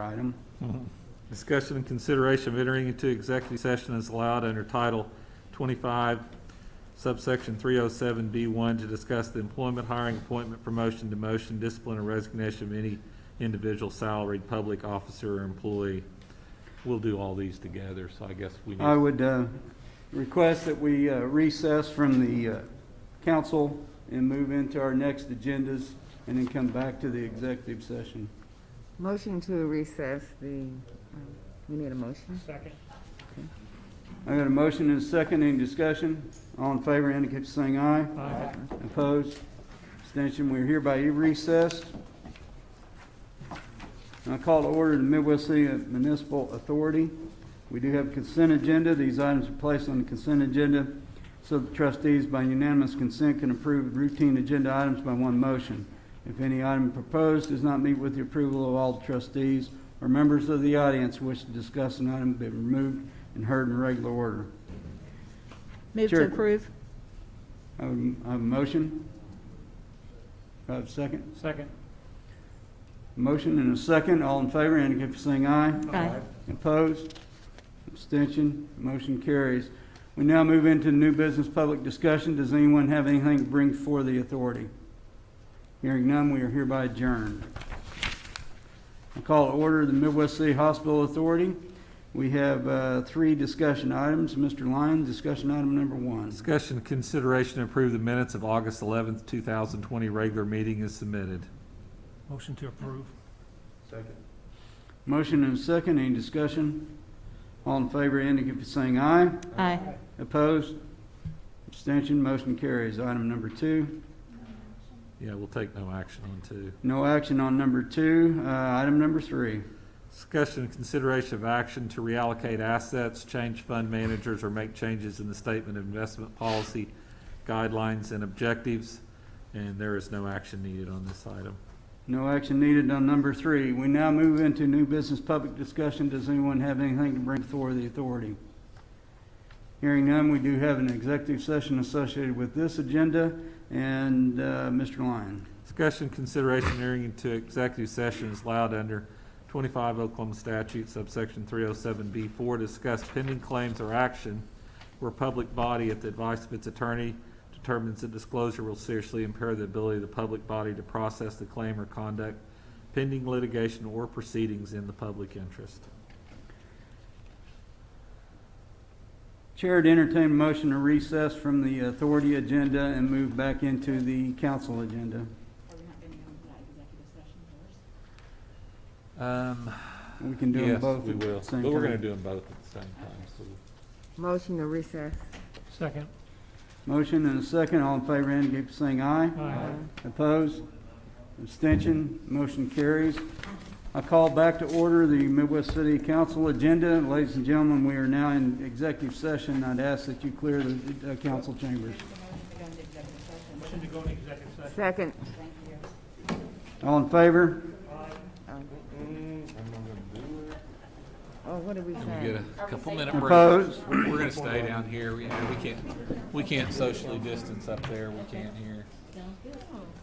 item. Discussion and consideration of entering into executive session is allowed under Title 25, subsection 307B1 to discuss the employment, hiring, appointment, promotion, demotion, discipline, or resignation of any individual salaried public officer or employee. We'll do all these together, so I guess we I need, would uh, request that we uh, recess from the uh, council and move into our next agendas and then come back to the executive session. Motion to recess the, um, we need a motion? Second. I got a motion and a second, any discussion? All in favor indicate by saying aye. Aye. Opposed? Abstention, we're hereby recessed. And I call to order the Midwest City Municipal Authority. We do have consent agenda. These items are placed on the consent agenda so the trustees by unanimous consent can approve routine agenda items by one motion. If any item proposed does not meet with the approval of all trustees or members of the audience who wish to discuss an item, be removed and heard in regular order. Move Sure. to approve. I would- I have a motion. Do I have a second? Second. Motion and a second, all in favor, indicate by saying aye. Aye. Opposed? Abstention? Motion carries. We now move into new business public discussion. Does anyone have anything to bring before the authority? Hearing none, we are hereby adjourned. I call to order the Midwest City Hospital Authority. We have uh, three discussion items. Mr. Lyon, discussion item number one. discussion and consideration to approve the minutes of August 11th, 2020 regular meeting is submitted. Motion to approve. Motion and a second, any discussion? All in favor, indicate by saying aye. Aye. Opposed? Abstention, motion carries. Item number two, Yeah, we'll take no action on two. no action on number two. Uh, Item number three, Discussion and consideration of action to reallocate assets, change fund managers, or make changes in the statement of investment policy guidelines and objectives. And there is no action needed on this item. no action needed on number three. We now move into new business public discussion. Does anyone have anything to bring before the authority? Hearing none, we do have an executive session associated with this agenda, and uh, Mr. Lyon. Discussion, consideration, entering into executive session is allowed under twenty-five Oklahoma statute subsection three oh seven B four, to discuss pending claims or action where public body at the advice of its attorney determines that disclosure will seriously impair the ability of the public body to process the claim or conduct pending litigation or proceedings in the public interest. Chair would entertain a motion to recess from the authority agenda and move back into the council agenda. Um, We can do them both we at will, the same time. but we're gonna do them both at the same time, so. Motion to recess. Second. Motion and a second, all in favor indicate by saying aye. Aye. Uh, Opposed? Abstention? Motion carries. I call back to order the Midwest City Council agenda. Ladies and gentlemen, we are now in executive session. I'd ask that you clear the uh, council chambers. Motion to go into executive session. Second. All in favor? Oh, what did we Get say? a couple minute break. Opposed? We're we're gonna stay down here. We, we can't, we can't socially distance up there. We can't here.